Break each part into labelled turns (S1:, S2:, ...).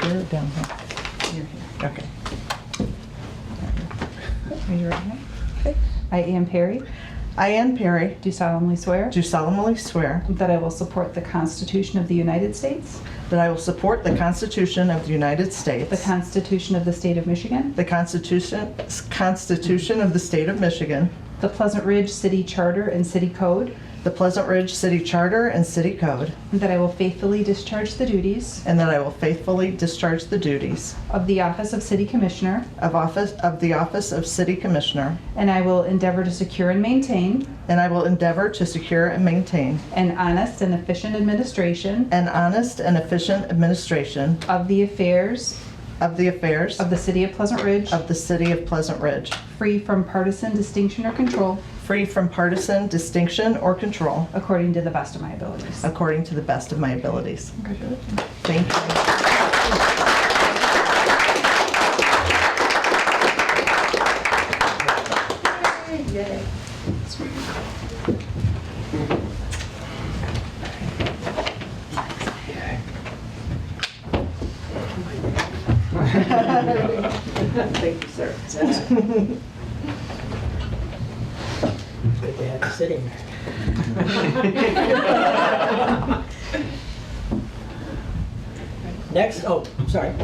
S1: here or down here? Okay. Are you ready?
S2: I, Ann Perry,
S1: I, Ann Perry,
S2: do solemnly swear
S1: do solemnly swear
S2: that I will support the Constitution of the United States,
S1: that I will support the Constitution of the United States,
S2: the Constitution of the State of Michigan,
S1: the Constitution, Constitution of the State of Michigan,
S2: the Pleasant Ridge City Charter and City Code,
S1: the Pleasant Ridge City Charter and City Code,
S2: and that I will faithfully discharge the duties
S1: and that I will faithfully discharge the duties
S2: of the Office of City Commissioner,
S1: of office, of the office of City Commissioner,
S2: and I will endeavor to secure and maintain
S1: and I will endeavor to secure and maintain
S2: an honest and efficient administration
S1: an honest and efficient administration
S2: of the affairs
S1: of the affairs
S2: of the City of Pleasant Ridge,
S1: of the City of Pleasant Ridge,
S2: free from partisan distinction or control,
S1: free from partisan distinction or control,
S2: according to the best of my abilities.
S1: according to the best of my abilities.
S2: Congratulations.
S1: Thank you.
S3: Thank you, sir. Good to have you sitting there. Next, oh, sorry.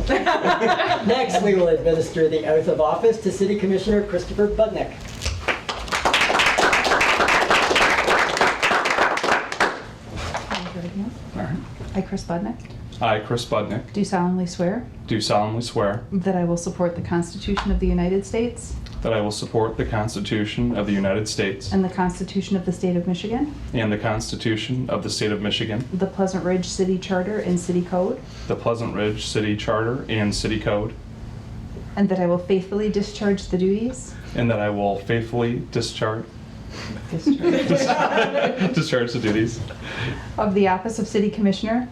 S3: Next, we will administer the oath of office to City Commissioner Christopher Budnick.
S2: I, Chris Budnick,
S4: I, Chris Budnick,
S2: do solemnly swear
S4: do solemnly swear
S2: that I will support the Constitution of the United States
S4: that I will support the Constitution of the United States
S2: and the Constitution of the State of Michigan,
S4: and the Constitution of the State of Michigan,
S2: the Pleasant Ridge City Charter and City Code,
S4: the Pleasant Ridge City Charter and City Code,
S2: and that I will faithfully discharge the duties
S4: and that I will faithfully discharge discharge the duties
S2: of the Office of City Commissioner,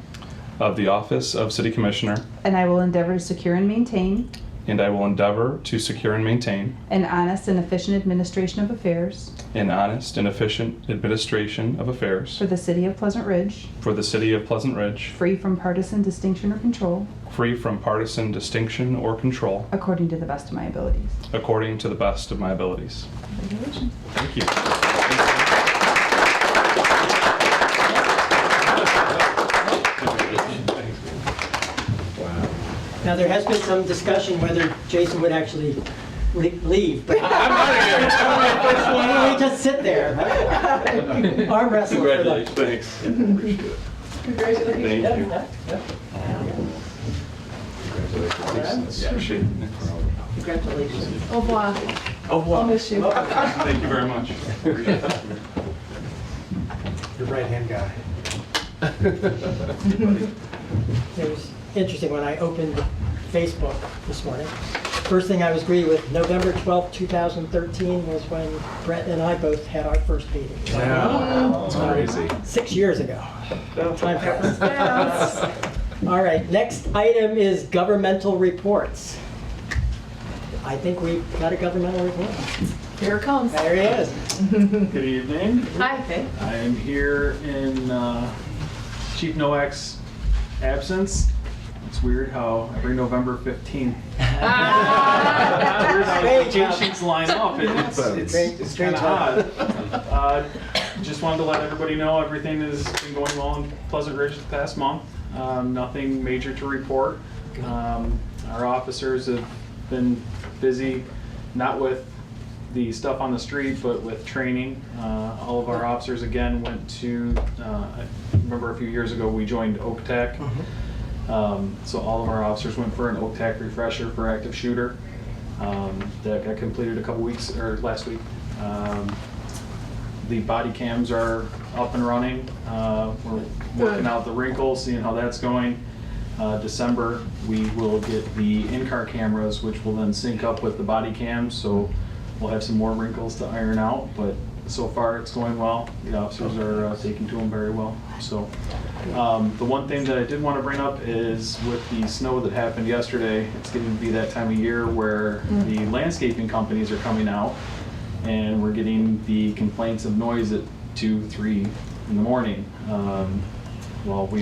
S4: of the office of City Commissioner,
S2: and I will endeavor to secure and maintain
S4: and I will endeavor to secure and maintain
S2: an honest and efficient administration of affairs
S4: an honest and efficient administration of affairs
S2: for the City of Pleasant Ridge,
S4: for the City of Pleasant Ridge,
S2: free from partisan distinction or control,
S4: free from partisan distinction or control,
S2: according to the best of my abilities.
S4: according to the best of my abilities.
S2: Congratulations.
S4: Thank you.
S3: Now, there has been some discussion whether Jason would actually le- leave, but
S4: I'm out of here. I'm my first one
S3: why don't
S4: out.
S3: we just sit there? Arm wrestle for the...
S4: Thanks. Congratulations. Thank you. Congratulations. Appreciate it.
S5: Au revoir.
S4: Au revoir.
S5: I'll miss you.
S4: Thank you very much.
S6: Your right-hand guy.
S3: It was interesting when I opened Facebook this morning. First thing I was greeted with, November 12th, 2013 was when Brett and I both had our first meeting.
S6: Yeah, it's crazy.
S3: Six years ago. Time flies. All right, next item is governmental reports. I think we've got a governmental report.
S5: Here it comes.
S3: There he is.
S7: Good evening.
S5: Hi.
S7: I am here in uh, Chief Noak's absence. It's weird how every November 15th, weird how
S3: Great
S7: vacations line up. It- It's, it's,
S3: Great-
S7: it's
S3: great
S7: kind of odd. Uh, Just wanted to let everybody know, everything has been going well in Pleasant Ridge the past month. Um, Nothing major to report. Um, Our officers have been busy, not with the stuff on the street, but with training. Uh, All of our officers, again, went to, uh, I remember a few years ago, we joined Oak Tech. Um, So all of our officers went for an OTAC refresher for active shooter um, that got completed a couple weeks, or last week. Um, The body cams are up and running. Uh, We're working out the wrinkles, seeing how that's going. Uh, December, we will get the in-car cameras, which will then sync up with the body cams, so we'll have some more wrinkles to iron out, but so far it's going well. The officers are uh, taking to them very well, so. Um, The one thing that I did want to bring up is with the snow that happened yesterday, it's getting to be that time of year where the landscaping companies are coming out and we're getting the complaints of noise at two, three in the morning. Um, Well, we